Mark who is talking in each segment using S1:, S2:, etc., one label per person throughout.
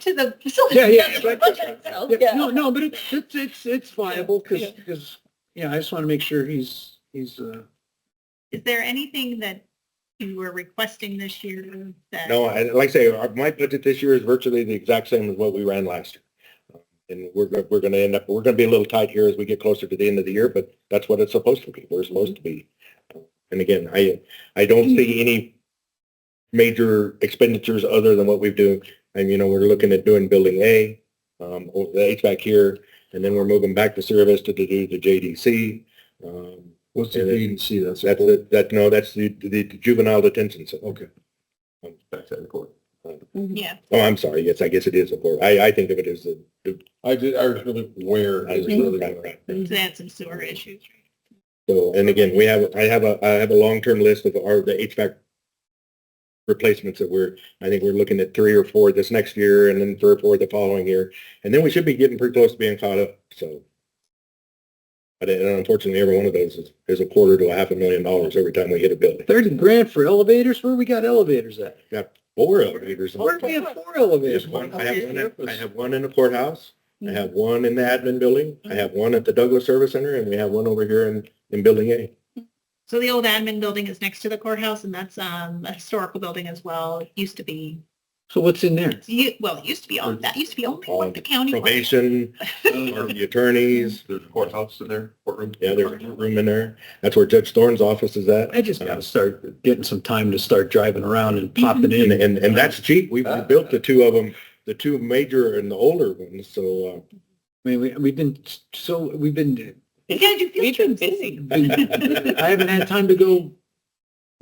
S1: to the facility.
S2: Yeah, yeah,
S1: It doesn't
S2: right, right,
S1: budget itself.
S2: Yeah,
S1: Oh, Yeah.
S2: No, no, but it- it's, it's, it's viable because,
S1: Yeah.
S2: because, yeah, I just want to make sure he's, he's, uh,
S1: Is there anything that you were requesting this year that?
S3: No, I, like I say, our, my budget this year is virtually the exact same as what we ran last year. Um, And we're, go- we're gonna end up, we're gonna be a little tight here as we get closer to the end of the year, but that's what it's supposed to be. We're supposed to be. And again, I, I don't see any major expenditures other than what we've doing. And, you know, we're looking at doing building A, um, or the HVAC here, and then we're moving back to service to do the JDC. Um,
S4: What's
S3: Yeah,
S4: the
S3: that-
S4: agency that's?
S3: that's, the- that, no, that's the, the juvenile detention center.
S4: Okay.
S3: Um, Back to the court.
S1: Yeah,
S3: Oh, I'm sorry. Yes, I guess it is a board. I, I think of it as the.
S4: I did, I was really aware.
S3: I was really- right, right.
S1: so they had some sewer issues.
S3: So, and again, we have, I have a, I have a long-term list of our, the HVAC replacements that we're, I think we're looking at three or four this next year and then three or four the following year. And then we should be getting pretty close to being caught up, so. But and unfortunately, every one of those is, is a quarter to a half a million dollars every time we hit a building.
S2: thirty grand for elevators? Where we got elevators at?
S3: Four elevators.
S1: Oh,
S3: in
S2: Where
S3: the
S2: we have four elevators?
S3: There's one, I have one, at- I have one in the courthouse, I have one in the admin building, I have one at the Douglas Service Center, and we have one over here in, in Building A.
S1: So the old admin building is next to the courthouse and that's um, a historical building as well. It used to be,
S2: So what's in there?
S1: you, well, it used to be on, that used to be only what the county. was.
S3: Probation,
S2: Mm-hmm.
S3: or the attorneys,
S4: There's a courthouse in there, courtroom.
S3: yeah, there's a room in there. That's where Judge Thorne's office is at.
S2: I just gotta start getting some time to start driving around and popping
S3: And,
S2: in.
S3: and, and that's cheap. We we built the two of them, the two major and the older ones, so, uh,
S2: I mean, we, we've been, so, we've been,
S1: Yeah, you feel
S5: We've been busy.
S2: been- I haven't had time to go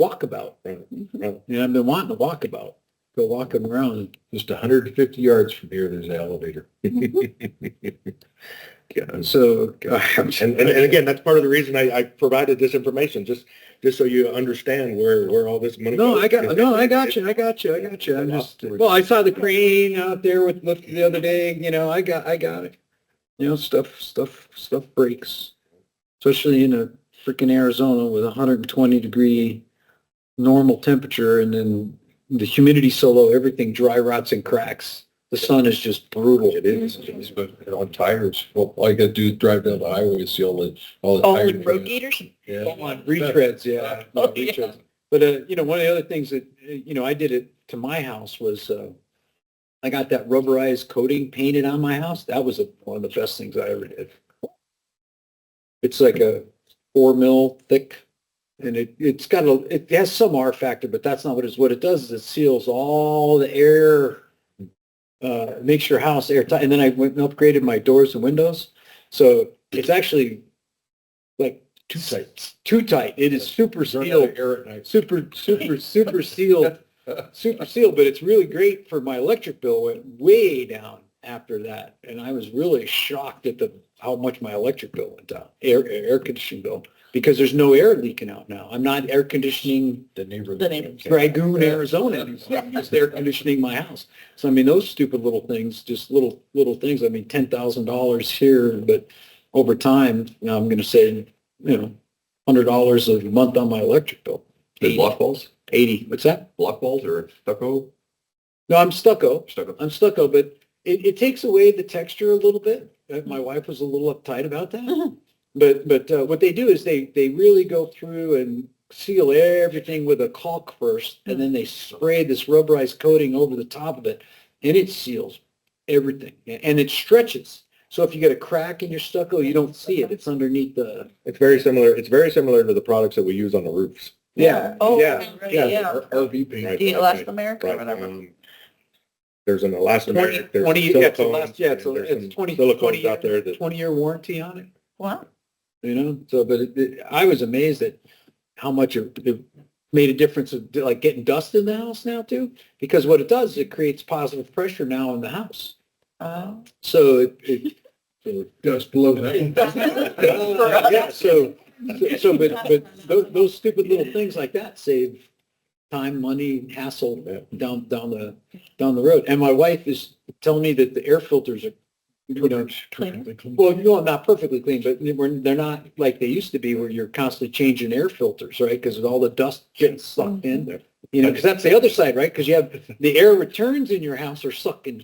S2: walkabout.
S3: uh,
S2: You know, I've been wanting to walkabout, go walking around.
S4: Just hundred and fifty yards from here, there's an elevator.
S2: So, I'm just-
S3: And, and, and again, that's part of the reason I, I provided this information, just, just so you understand where, where all this money.
S2: No,
S3: goes.
S2: I got, no, I got you, I got you, I got you, I'm just, well, I saw the crane out there with, lift the other day, you know, I got, I got it. You know, stuff, stuff, stuff breaks, especially in a freaking Arizona with a hundred and twenty degree normal temperature and then the humidity so low, everything dry rots and cracks. The sun is just brutal.
S3: It is.
S4: But on tires, well, all you gotta do is drive down the highway and see all the, all the
S2: Oh,
S5: All
S4: tires.
S5: the road gators.
S4: Yeah.
S2: Full on retreads, yeah.
S5: Oh, yeah.
S2: Retreads. But, uh, you know, one of the other things that, uh, you know, I did it to my house was, uh, I got that rubberized coating painted on my house. That was a- one of the best things I ever did. It's like a four mil thick and it, it's got a, it has some R factor, but that's not what it's, what it does is it seals all the air, uh, makes your house airtight. And then I went and upgraded my doors and windows. So it's actually like
S4: Too tight.
S2: too tight. It is super
S4: Run out
S2: sealed,
S4: of air at night.
S2: super, super, super sealed, super sealed, but it's really great for my electric bill went way down after that. And I was really shocked at the, how much my electric bill went down, air, air conditioning bill, because there's no air leaking out now. I'm not air conditioning
S4: The neighbor.
S5: The neighbor.
S2: Dragoon, Arizona. anymore. I'm just air conditioning my house. So I mean, those stupid little things, just little, little things. I mean, ten thousand dollars here, but over time, you know, I'm gonna save, you know, hundred dollars a month on my electric bill.
S4: There's block
S2: walls? Eighty. What's that?
S4: Block walls or stucco,
S2: No, I'm stucco.
S4: stucco.
S2: I'm stucco, but it, it takes away the texture a little bit. Uh, My wife was a little uptight about that. But, but uh, what they do is they, they really go through and seal everything with a caulk first, and then they spray this rubberized coating over the top of it, and it seals everything, a- and it stretches. So if you get a crack in your stucco, you don't see it. It's underneath the,
S3: It's very similar, it's very similar to the products that we use on the roofs.
S2: yeah,
S5: Oh,
S2: yeah.
S5: right,
S2: yeah.
S5: yeah.
S4: RV paint.
S5: The elastomeric or
S3: Right,
S5: whatever.
S3: um, There's an elastomeric, there's
S2: Twenty, yeah, it's a
S3: silicone.
S2: last, yeah, it's, a-
S3: and there's some
S2: it's twenty,
S3: Silicones
S2: twenty,
S3: out there that,
S2: twenty-year warranty on it.
S5: Wow.
S2: you know so but it, it, i was amazed at how much it, it made a difference of like getting dust in the house now too because what it does is it creates positive pressure now in the house
S5: Oh.
S2: so it, it
S4: Dust below that.
S2: uh, yeah so so- so but but those, those stupid little things like that save time money hassle down down the down the road and my wife is telling me that the air filters are you know Well, no, not perfectly clean, but they we're, they're not like they used to be where you're constantly changing air filters, right? Because all the dust gets sucked in. You know, because that's the other side, right? Because you have the air returns in your house are sucking